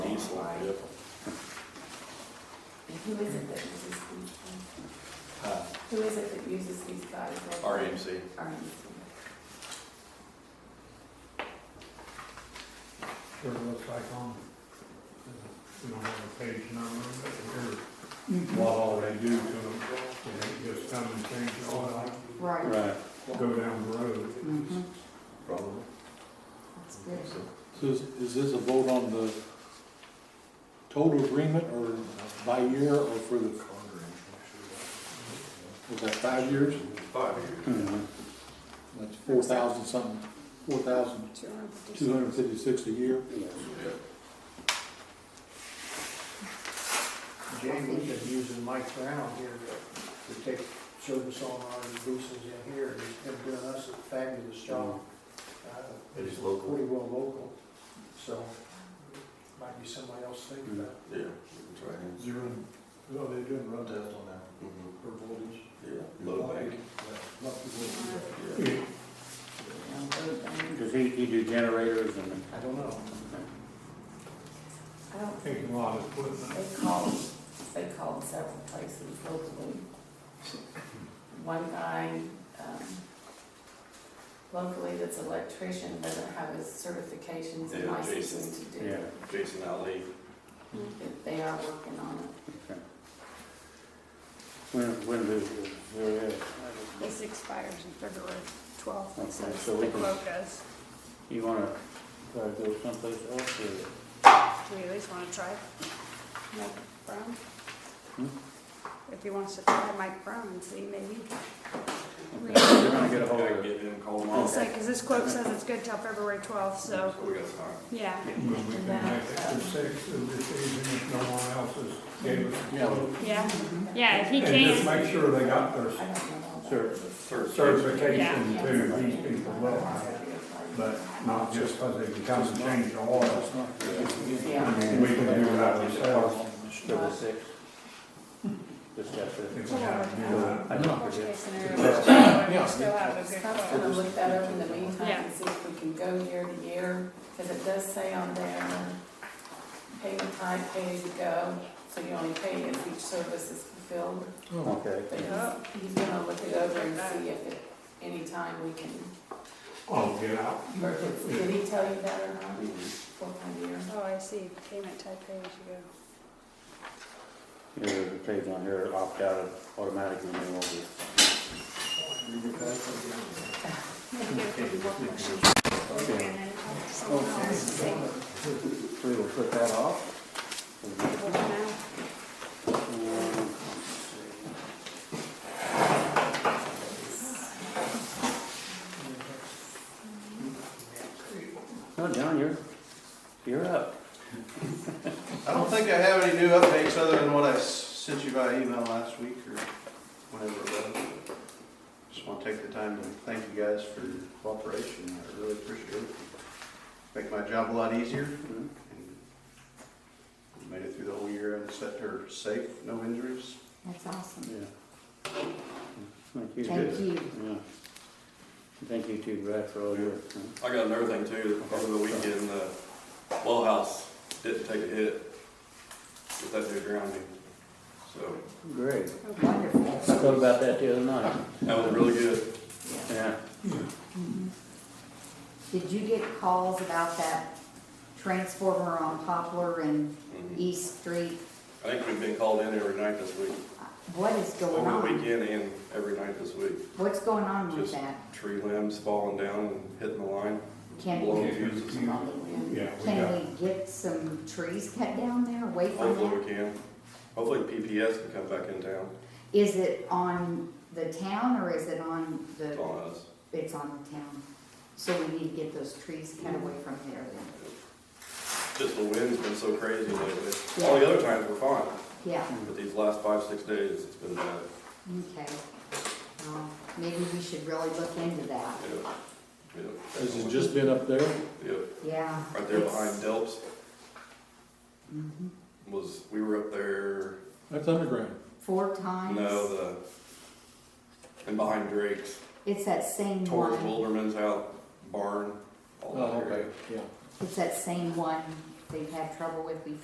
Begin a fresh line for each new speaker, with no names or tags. who is it that uses these things?
Uh,
Who is it that uses these guys?
RMC.
RMC.
sort of looks like on, we don't have a page number, but here's what all they do to them. They just come and change the oil,
Right.
Right,
go down the road.
Mhm.
Probably.
That's good.
So,
so is, is this a vote on the total agreement or by year or for the, was that five years?
Five years.
That's four thousand something, four thousand
Two hundred fifty.
two hundred fifty-six a year.
Jay, we've been using Mike Brown here to, to take service on our diesels in here, and he's been doing us a fabulous job. Uh,
It is local.
Pretty well local, so might be somebody else thinking about
Yeah, we can try him.
You're in, well, they doing run test on
Mhm.
that, for voltage.
Yeah, low bank. Yeah.
Yeah,
Does he, he do generators and?
it. I don't know.
I don't think,
taking a lot of equipment.
they called, they called several places locally. One guy, um, locally that's electrician doesn't have his certifications and
Yeah,
licenses to do it.
Jason Ali.
But They are working on it.
When, when do,
This expires in February twelfth,
Okay,
it says
so we
the
can-
quote does.
you wanna try to go someplace else or?
Do we at least want to try Mike Brown?
Hmm?
If he wants to try Mike Brown and see maybe.
You're gonna get a hold
Gotta
of
Get him, call him
It's
off.
like, because this quote says it's good till February twelfth, so,
So we got time.
yeah.
When we can make it to six of this season, if no one else has gave us a
Yeah.
quote.
Yeah, yeah, if he
And just
can,
make sure they got their
I don't know. all
Sure.
about this.
certification
Yeah.
to these people well, but not just because they can come and change the oil.
Yeah.
We can do that ourselves.
Double six. Just got to.
If we have to do that.
I know.
worst case scenario, we
Yeah.
still have a good
I'm
quote.
gonna look that up in the meantime
Yeah.
and see if we can go year to year, because it does say on there, pay the time, pay as you go, so you only pay if each service is fulfilled.
Okay.
But he's,
Yeah.
he's gonna look it over and see if at any time we can,
Oh, get out.
or if it's, did he tell you that or not? What kind of year?
Oh, I see, payment type pay as you go.
Yeah, there's a page on here, opt out of automatic renewal.
Maybe if we can work with you.
Okay.
And then talk to someone else and see.
We will put that off.
Well, now,
No, John, you're, you're up.
I don't think I have any new updates other than what I s- sent you by email last week or whenever it was. Just want to take the time to thank you guys for your cooperation. I really appreciate it. Make my job a lot easier. and we Made it through the whole year and set her safe, no injuries.
That's awesome.
Yeah. Thank you. Thank you. Thank you too, Brad, for all your,
I got another thing too, over the weekend, the well house didn't take a hit with that new grounding. So
great. I
Wonderful.
thought about that the other night.
that was really good.
Yeah.
Did you get calls about that transformer on Poplar and
Mhm.
East Street?
I think we've been called in every night this week,
What is going
over the
on?
weekend and every night this week.
What's going on with
Just
that?
tree limbs falling down and hitting the line,
Can,
blowing
we-
fuses.
Yeah, we got,
can we get some trees cut down there away from
Hopefully
that?
we can. Hopefully PPS can come back in town
Is it on the town or is it on the,
on us.
it's on the town? So we need to get those trees cut
Mm-hmm.
away from there then,
Just the wind's been so crazy lately. All the other times we're fine,
yeah,
but these last five, six days, it's been bad.
okay. Well, Maybe we should really look into that,
Yep. Yep.
Has it just been up there?
Yep,
yeah.
right there
it's-
behind Delps
mhm.
was, we were up there,
That's underground.
Four times?
no, the, and behind Drake's,
It's that same
towards
one.
Wilderman's out, barn, all that area.
Yeah.
It's that same one they've had trouble with